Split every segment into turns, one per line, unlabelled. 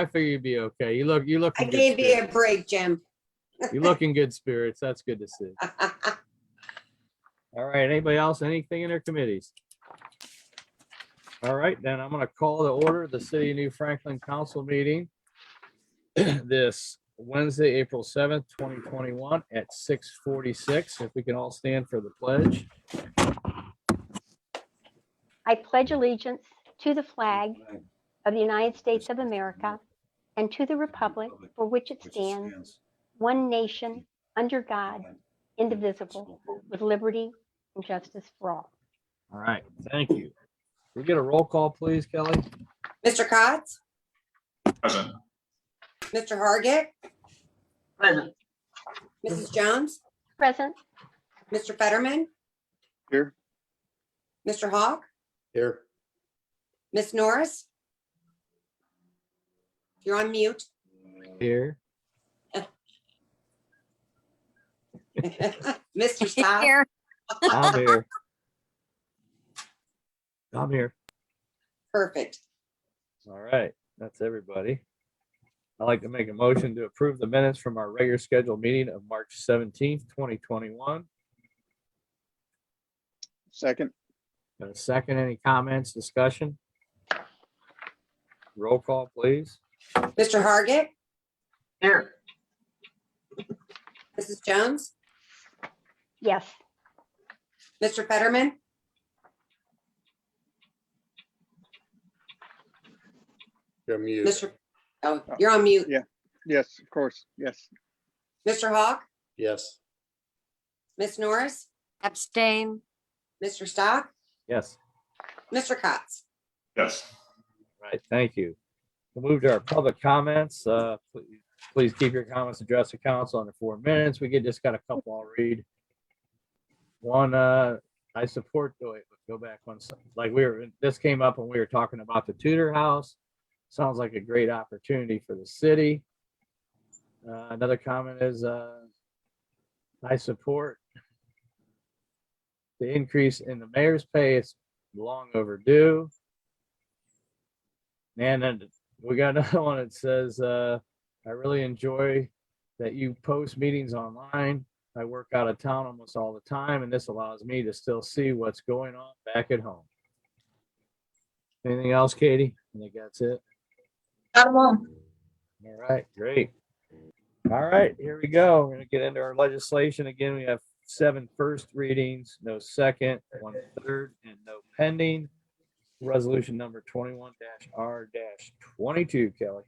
I figure you'd be okay. You look, you look.
I
in good
gave you a
spirits.
break, Jim.
You look in good spirits. That's good to see. All right, anybody else, anything in their committees? All right, then I'm gonna call the order, the City of New Franklin Council meeting this Wednesday, April seventh, twenty twenty-one at six forty-six. If we can all stand for the pledge.
I pledge allegiance to the flag of the United States of America and to the republic for which it stands, one nation, under God, indivisible, with liberty and justice for all.
All right, thank you. We get a roll call, please, Kelly?
Mr. Cotts,
Present.
Mr. Hargit,
Present.
Mrs. Jones,
Present,
Mr. Fetterman.
Here.
Mr. Hawk,
Here.
Miss Norris. You're on mute.
Here.
Mr. Stock,
I'm here. I'm here.
perfect.
All right, that's everybody. I'd like to make a motion to approve the minutes from our regular scheduled meeting of March seventeenth, twenty twenty-one.
Second,
Got a second? Any comments, discussion? Roll call, please.
Mr. Hargit,
Here.
Mrs. Jones,
yes.
Mr. Fetterman.
You're muted.
Mr. Oh, you're on mute.
yes, of course, yes.
Mr. Hawk,
Yes.
Miss Norris,
Abstain.
Mr. Stock,
Yes.
Mr. Cotts.
Yes.
Right, thank you. We'll move to our public comments. Uh, pl- Please keep your comments addressed to council under four minutes. We get, just got a couple I'll read. One, uh, I support, oh, wait, go back one second. Like we were, this came up when we were talking about the Tudor House. Sounds like a great opportunity for the city. Uh, Another comment is, uh, I support the increase in the mayor's pay. It's long overdue. And then we got another one that says, uh, I really enjoy that you post meetings online. I work out of town almost all the time and this allows me to still see what's going on back at home. Anything else, Katie? I think that's it.
Got one.
All right, great. All right, here we go. We're gonna get into our legislation. Again, we have seven first readings, no second, one third, and no pending. Resolution number twenty-one R twenty-two, Kelly.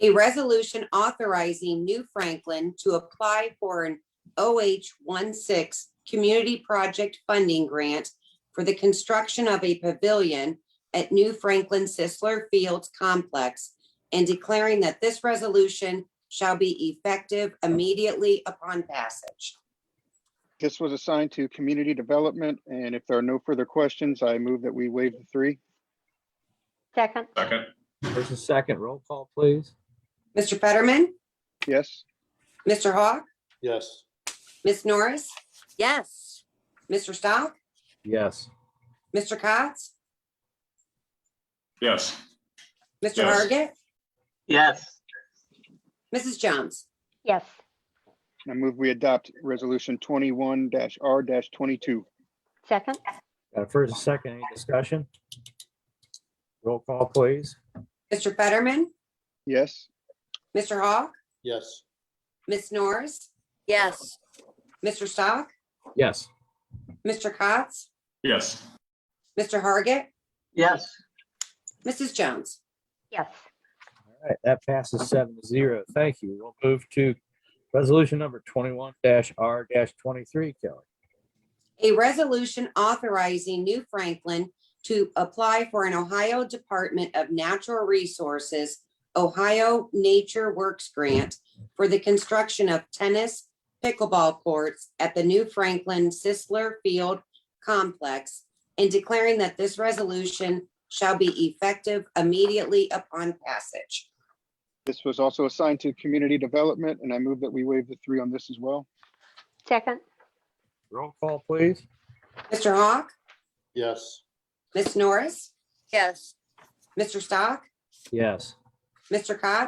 A resolution authorizing New Franklin to apply for an OH-16 Community Project Funding Grant for the construction of a pavilion at New Franklin Sisler Fields Complex and declaring that this resolution shall be effective immediately upon passage.
This was assigned to community development, and if there are no further questions, I move that we waive the three.
Second,
Second.
First and second, roll call, please.
Mr. Fetterman,
Yes,
Mr. Hawk,
Yes.
Ms. Norris,
Yes.
Mr. Stock,
Yes.
Mr. Cotts,
Yes,
Mr.
Yes.
Hargit,
Yes.
Mrs. Jones.
yes.
I move we adopt resolution twenty-one R twenty-two.
Second,
Got a first and second, any discussion? Roll call, please.
Mr. Fetterman,
Yes,
Mr. Hawk,
Yes.
Ms. Norris,
Yes.
Mr. Stock,
Yes.
Mr. Cotts,
yes,
Mr. Hargit,
Yes.
Mrs. Jones.
yes.
All right, that passes seven to zero. Thank you. We'll move to resolution number twenty-one R twenty-three, Kelly.
A resolution authorizing New Franklin to apply for an Ohio Department of Natural Resources, Ohio Nature Works Grant for the construction of tennis pickleball courts at the New Franklin Sisler Field Complex and declaring that this resolution shall be effective immediately upon passage.
this was also assigned to community development, and I move that we waive the three on this as well.
Second,
Roll call, please.
Mr. Hawk,
Yes.
Ms. Norris,
Yes.
Mr. Stock,
Yes.
Mr. Cox?